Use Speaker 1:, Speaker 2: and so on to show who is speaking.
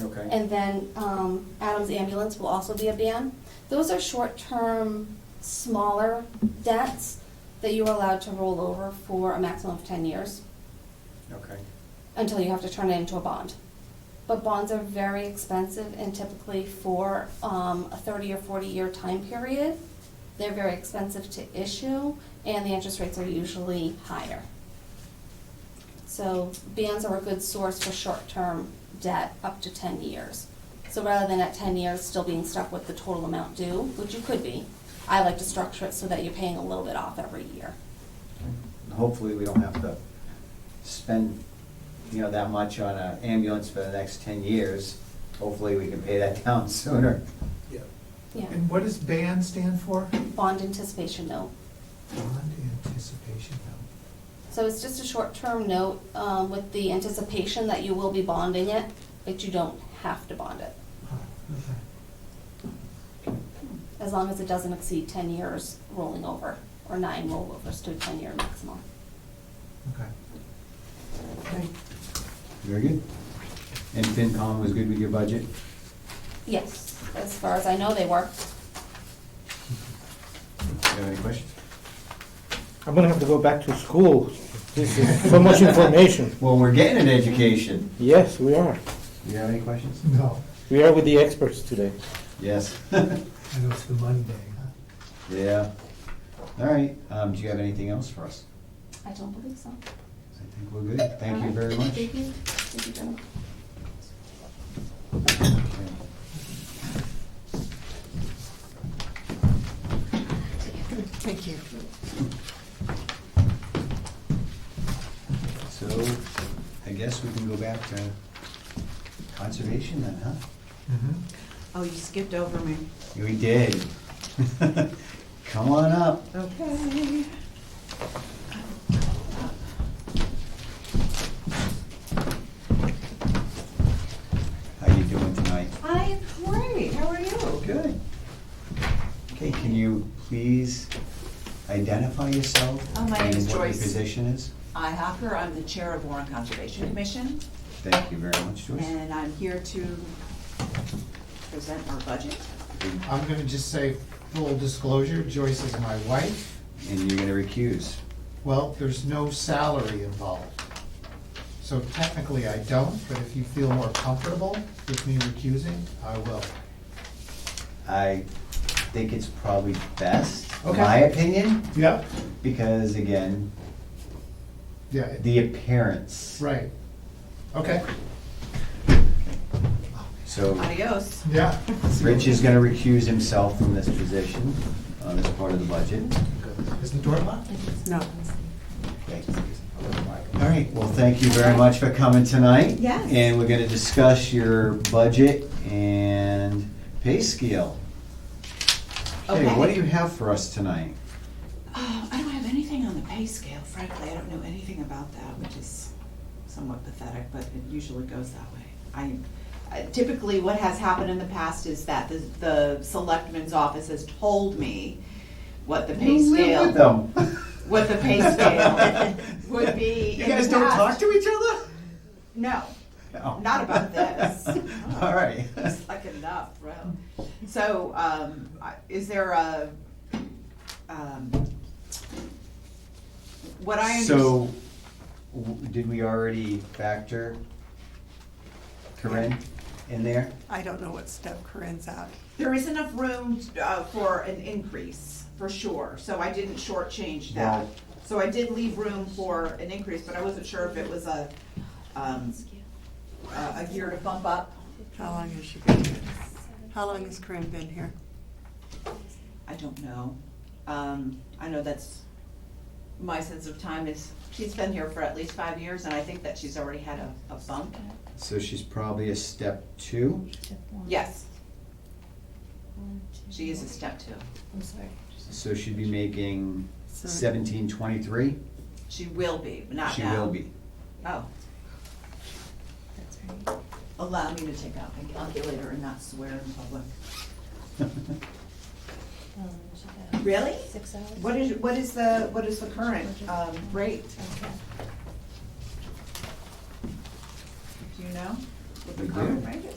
Speaker 1: Okay.
Speaker 2: And then um, Adams Ambulance will also be a ban. Those are short-term, smaller debts that you are allowed to roll over for a maximum of 10 years
Speaker 1: Okay.
Speaker 2: until you have to turn it into a bond. But bonds are very expensive and typically for um, a 30 or 40-year time period, they're very expensive to issue and the interest rates are usually higher. So bonds are a good source for short-term debt up to 10 years. So rather than at 10 years still being stuck with the total amount due, which you could be, I like to structure it so that you're paying a little bit off every year.
Speaker 1: And Hopefully, we don't have to spend, you know, that much on an ambulance for the next ten years. Hopefully, we can pay that down sooner.
Speaker 3: Yeah.
Speaker 2: Yeah,
Speaker 3: And what does BAN stand for?
Speaker 2: bond anticipation note.
Speaker 3: Bond Anticipation Note.
Speaker 2: So it's just a short-term note um, with the anticipation that you will be bonding it, but you don't have to bond it,
Speaker 3: Huh, okay.
Speaker 2: as long as it doesn't exceed 10 years rolling over, or nine rollovers to a 10-year maximum.
Speaker 3: Okay. Okay.
Speaker 1: Very good. And FinCom was good with your budget?
Speaker 2: Yes, as far as I know, they work.
Speaker 1: You have any questions?
Speaker 4: I'm gonna have to go back to school. This is so much information.
Speaker 1: Well, we're getting an education.
Speaker 4: Yes, we are.
Speaker 1: You have any questions?
Speaker 3: No,
Speaker 4: We are with the experts today.
Speaker 1: Yes.
Speaker 3: I know it's the Monday, huh?
Speaker 1: Yeah. All right, um, do you have anything else for us?
Speaker 2: I don't believe so.
Speaker 1: I think we're good. Thank you very much.
Speaker 2: Thank you. Thank you, gentlemen.
Speaker 5: Thank you.
Speaker 1: So, I guess we can go back to conservation then, huh?
Speaker 3: Mhm.
Speaker 6: Mm-hmm.
Speaker 5: Oh, you skipped over me.
Speaker 1: We did. Come on up.
Speaker 5: Okay.
Speaker 1: How you doing tonight?
Speaker 5: I am great. How are you?
Speaker 1: Good. Okay, can you please identify yourself?
Speaker 5: Oh, my name's
Speaker 1: And what your
Speaker 5: Joyce.
Speaker 1: position is?
Speaker 5: I Hocker, I'm the Chair of Warren Conservation Commission,
Speaker 1: Thank you very much, Joyce.
Speaker 5: and I'm here to present our budget.
Speaker 6: I'm gonna just say full disclosure, Joyce is my wife.
Speaker 1: And you're gonna recuse.
Speaker 6: Well, there's no salary involved. So technically I don't, but if you feel more comfortable with me recusing, I will.
Speaker 1: I think it's probably best, in
Speaker 6: Okay.
Speaker 1: my opinion,
Speaker 6: Yep.
Speaker 1: because again,
Speaker 6: Yeah, it-
Speaker 1: the appearance.
Speaker 6: right. Okay,
Speaker 1: So
Speaker 5: Adios.
Speaker 6: yeah.
Speaker 1: Rich is gonna recuse himself from this position on this part of the budget.
Speaker 6: Is the door locked?
Speaker 5: No.
Speaker 1: Okay. All right, well, thank you very much for coming tonight.
Speaker 5: Yes.
Speaker 1: And we're gonna discuss your budget and pay scale. Okay, what do
Speaker 5: Okay.
Speaker 1: you have for us tonight?
Speaker 5: Oh, I don't have anything on the pay scale, frankly. I don't know anything about that, which is somewhat pathetic, but it usually goes that way. I, I- typically, what has happened in the past is that the, the selectman's office has told me what the pay
Speaker 1: You
Speaker 5: scale.
Speaker 1: live with them.
Speaker 5: what the pay scale would be.
Speaker 1: You
Speaker 5: in the
Speaker 1: guys don't
Speaker 5: past.
Speaker 1: talk to each other?
Speaker 5: No,
Speaker 1: No.
Speaker 5: not about this. Oh,
Speaker 1: All right.
Speaker 5: It's like enough, bro. So, um, I- is there a, um, what I under-
Speaker 1: So, w- did we already factor Corinne in there?
Speaker 7: I don't know what step Corinne's at.
Speaker 5: There is enough room, uh, for an increase, for sure, so I didn't shortchange that.
Speaker 1: Well-
Speaker 5: So I did leave room for an increase, but I wasn't sure if it was a, um, a a year to bump up.
Speaker 7: How long has she been here? How long has Corinne been here?
Speaker 5: I don't know. Um, I know that's, my sense of time is, she's been here for at least five years, and I think that she's already had a, a bump.
Speaker 1: So she's probably a step two,
Speaker 5: Yes, she is a step two.
Speaker 7: I'm sorry.
Speaker 1: so she'd be making
Speaker 7: So-
Speaker 1: seventeen twenty-three?
Speaker 5: She will be, but not
Speaker 1: She
Speaker 5: now.
Speaker 1: will be.
Speaker 5: Oh. Allow me to take out my calculator and not swear in public. Really?
Speaker 8: Six hours.
Speaker 5: What is, what is the, what is the current, um, rate? Do you know? what the
Speaker 1: We do.
Speaker 5: current rate is?